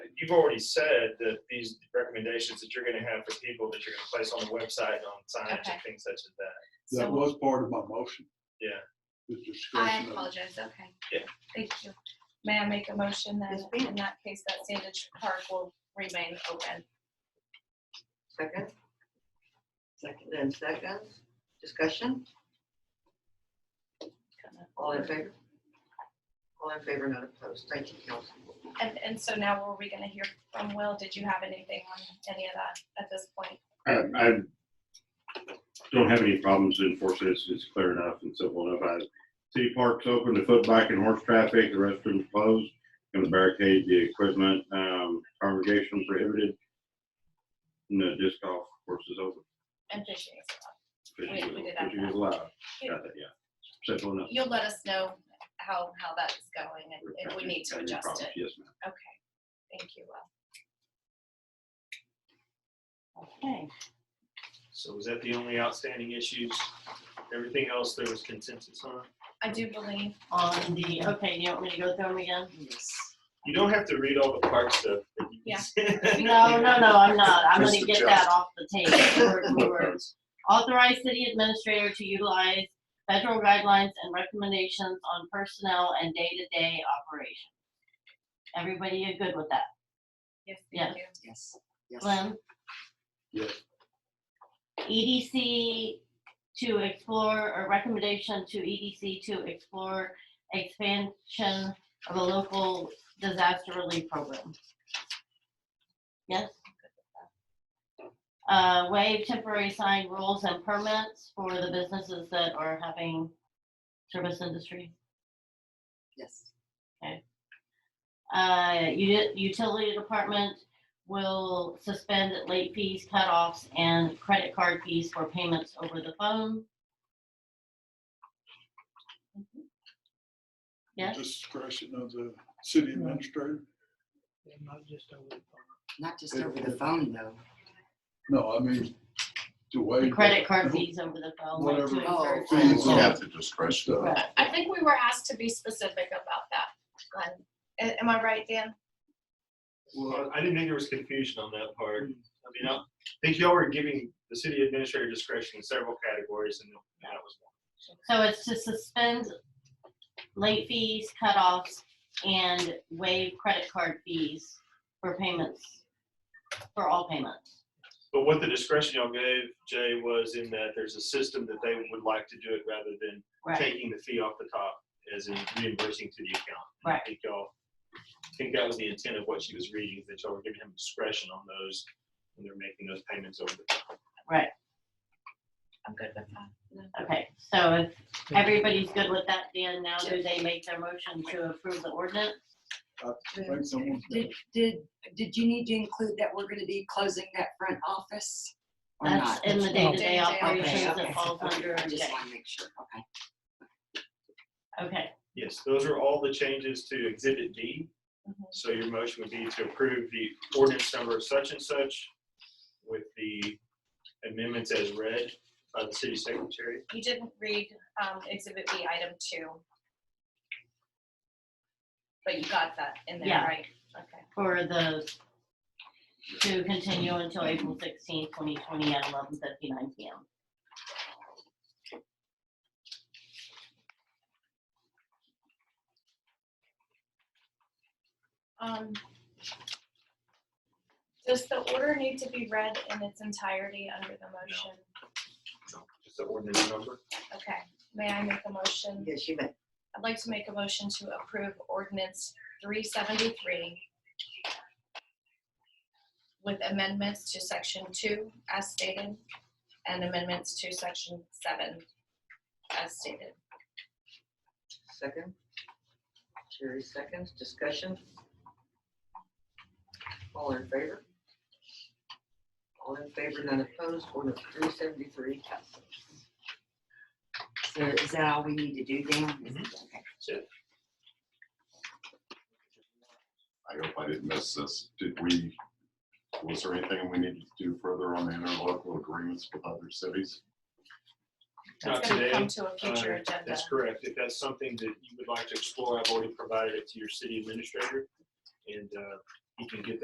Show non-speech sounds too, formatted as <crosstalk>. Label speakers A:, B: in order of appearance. A: you've already said that these recommendations that you're gonna have for people that you're gonna place on the website and on signage
B: Okay.
A: and things such as that.
C: That
B: So-
C: was part of my motion.
A: Yeah.
C: This
B: I
C: discussion of-
B: apologize, okay.
A: Yeah.
B: Thank you. May I make a motion that
D: Yes, ma'am.
B: in that case, that Sandage Park will remain open?
D: Second. Second and seconds. Discussion. All in favor? All in favor, not opposed. Thank you, Council.
B: And, and so now were we gonna hear from Will? Did you have anything on any of that at this point?
E: I, I don't have any problems enforcing it, it's, it's clear enough and simple enough. I, city parks open to foot, bike and horse traffic, the restrooms closed, gonna barricade the equipment, um, congregation prohibited. And the disc golf course is open.
B: And fishing is allowed.
E: Fishing
B: We- we did
E: is-
B: have
E: fishing is
B: that.
E: allowed, got that, yeah. Simple enough.
B: You'll let us know how, how that's going and if we need to
E: Any
B: adjust
E: problems?
B: it.
E: Yes, ma'am.
B: Okay, thank you, Will.
F: Okay,
A: So was that the only outstanding issues? Everything else there was consensus on?
B: I do believe,
F: on Um, the, okay, you want me to go through them again?
A: You don't have to read all the parts stuff. that you- <laughs>
B: Yeah.
F: No, no, no, I'm not. I'm gonna
C: Mr.
F: get that off the table. word for word. Authorize city administrator to utilize federal guidelines and recommendations on personnel and day-to-day operations. Everybody good with that?
B: yes,
F: Yeah.
B: thank you.
D: Yes. Yes.
F: Glenn?
C: Yes.
F: EDC to explore, or recommendation to EDC to explore expansion of a local disaster relief program. Yes? Uh, waive temporary sign rules and permits for the businesses that are having service industry.
D: Yes.
F: Uh, uti- utility department will suspend late fees, cutoffs, and credit card fees for payments over the phone. Yes.
C: Discretion of the city administrator.
G: Not just over the phone though.
C: No, I mean, to waive.
F: The credit card fees over the phone. like to
G: Whatever.
F: encourage-
C: Fees
G: Oh.
C: on
H: At the discretion.
C: stuff.
F: Right.
B: I think we were asked to be specific about that, Glenn. A- Am I right, Dan?
A: Well, I didn't think there was confusion on that part. I mean, I think y'all were giving the city administrator discretion in several categories and that was one.
F: So it's to suspend late fees, cutoffs, and waive credit card fees for payments, for all payments.
A: But what the discretion y'all gave, Jay, was in that there's a system that they would like to do it rather than
F: Right,
A: taking the fee off the top as in reimbursing to the account.
F: Right.
A: I think y'all, I think that was the intent of what she was reading, is that y'all were giving him discretion on those when they're making those payments over the top.
F: right.
B: I'm good with that.
F: Okay, so if everybody's good with that, Dan, now do they make their motion to approve the ordinance?
C: Like someone said,
G: Did, did, did you need to include that we're gonna be closing that front office? or
F: That's
G: not?
F: in the day-to-day
B: Day-to-day
G: Okay,
F: operations
G: okay,
F: that falls
G: okay.
F: under,
G: I just
F: okay,
G: wanna make sure, okay.
F: okay,
A: Yes, those are all the changes to Exhibit D.
F: Mm-hmm.
B: Mhm.
A: So your motion would be to approve the ordinance number such and such with the amendments as read by the city secretary.
B: You didn't read um, Exhibit B, Item 2. But you got that in there,
F: Yeah.
B: right? Okay.
F: for the, to continue until April sixteenth, twenty twenty, at eleven fifty-nine PM.
B: Um, Does the order need to be read in its entirety under the motion?
A: Just the ordinance number.
B: Okay, may I make a motion?
D: Yes, you may.
B: I'd like to make a motion to approve ordinance three seventy-three with amendments to section two as stated and amendments to section seven as stated.
D: Second. Jerry seconds. Discussion. All in favor? All in favor, none opposed. Ordinance three seventy-three passes.
G: So is that all we need to do, Dan? Okay.
H: I hope I didn't miss this. Did we, was there anything we needed to do further on the interlocal agreements with other cities?
A: Not
B: It's gonna
A: today.
B: come to a future
A: Uh,
B: agenda.
A: That's correct. If that's something that you would like to explore, I've already provided it to your city administrator. And uh, he can get that